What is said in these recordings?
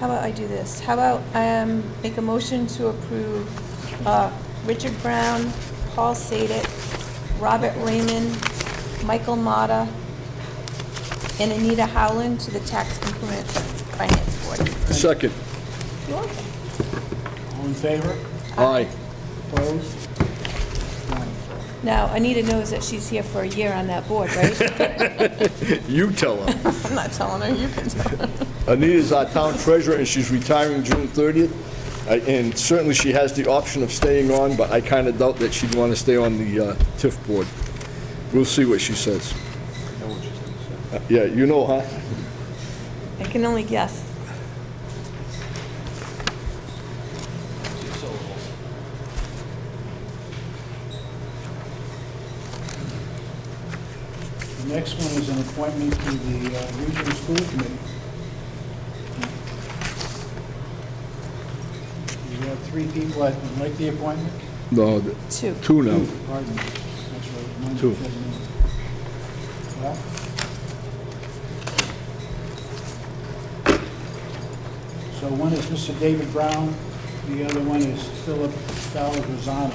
How about I do this? How about I um, make a motion to approve uh, Richard Brown, Paul Sadek, Robert Raymond, Michael Mata, and Anita Howland to the Tax Increment Finance Board. Second. All in favor? Aye. Opposed? Now, Anita knows that she's here for a year on that board, right? You tell her. I'm not telling her, you can tell her. Anita's our town treasurer, and she's retiring June 30th. I- And certainly, she has the option of staying on, but I kind of doubt that she'd want to stay on the uh, TIF board. We'll see what she says. Uh, Yeah, you know, huh? I can only guess. The next one is an appointment to the uh, Regional School Committee. We have three people that would like the appointment. No, th- Two. two now. Pardon me. That's right. Mine Two. says no. Well, So one is Mr. David Brown, the other one is Philip Falzano.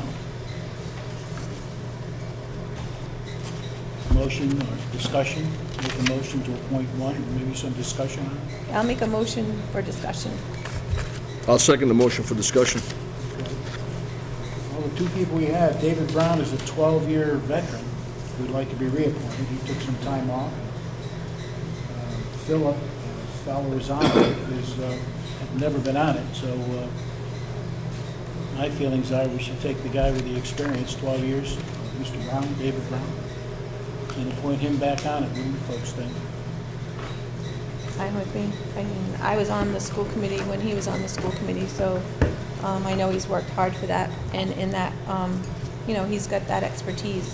Motion or discussion, make a motion to appoint one, maybe some discussion on it. I'll make a motion for discussion. I'll second the motion for discussion. Well, the two people we have, David Brown is a 12-year veteran who'd like to be reappointed. He took some time off. Uh, Philip uh, Falorizano is, uh, had never been on it, so uh, my feelings are we should take the guy with the experience, 12 years, Mr. Brown, David Brown, and appoint him back on it. What do you folks think? Fine with me. I mean, I was on the school committee when he was on the school committee, so um, I know he's worked hard for that. And in that, um, you know, he's got that expertise,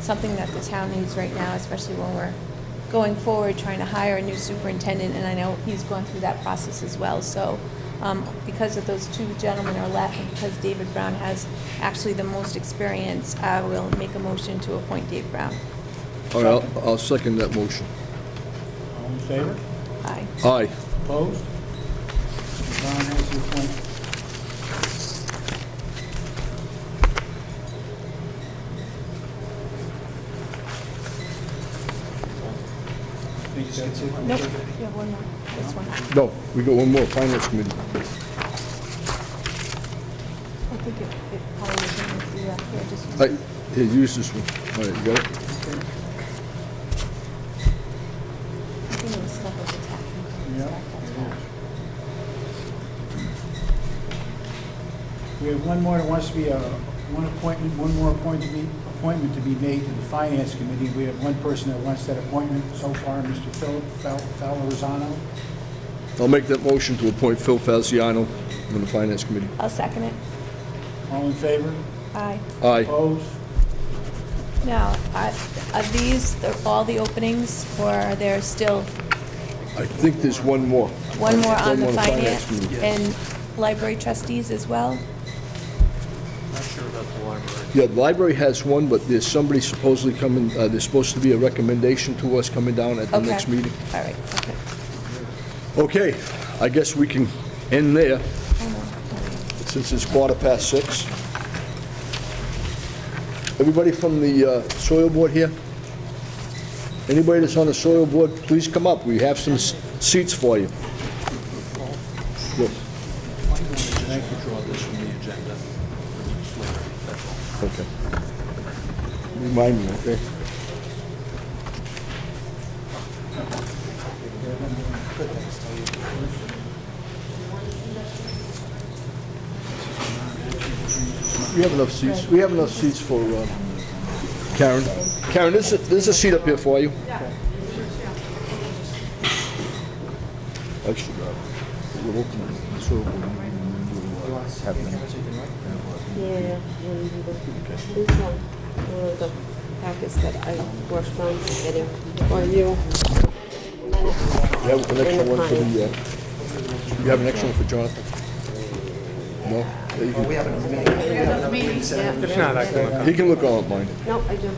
something that the town needs right now, especially when we're going forward, trying to hire a new superintendent. And I know he's gone through that process as well. So um, because of those two gentlemen are left and because David Brown has actually the most experience, I will make a motion to appoint Dave Brown. All right, I'll- I'll second that motion. All in favor? Aye. Aye. Opposed? Mr. Brown has the appointment. Nope, you have one more, this one. No, we got one more, Finance Committee. I think it, it probably was in the, yeah, here, just. Aye. Here, use this one. All right, you got it? I think it was stuck with the tax. and Yeah, stuff, that's why. it We have one more that wants to be, uh, one appointment, one more appointment to be, appointment to be made to the Finance Committee. We have one person that wants that appointment so far, Mr. Philip Fal- Falorizano. I'll make that motion to appoint Phil Faziano on the Finance Committee. I'll second it. All in favor? Aye. Aye. Opposed? Now, I- are these the- all the openings, or are there still I think there's one more. one more on the One more finance Committee. and library trustees as well? Not sure about the library. Yeah, the library has one, but there's somebody supposedly coming, uh, there's supposed to be a recommendation to us coming down at the Okay. next meeting. All right, okay. Okay, I guess we can end there, since it's quarter past six. Everybody from the uh, soil board here? Anybody that's on the soil board, please come up, we have some s- seats for you. Yes. Just withdraw this from the agenda for each letter, that's all. Okay. Remind me, okay? We have enough seats, we have enough seats for uh, Karen. Karen, there's, a- there's a seat up here for you. Actually, uh, we'll open it. So, we'll- we'll, uh, have them. Yeah, one of the- this one, one of the packets that I worked on getting for you. You have an extra And the one for client. the, uh, you have an extra one for Jonathan? No? Yeah, you can- Yeah, If not, I can look He can look all at mine. No, I do.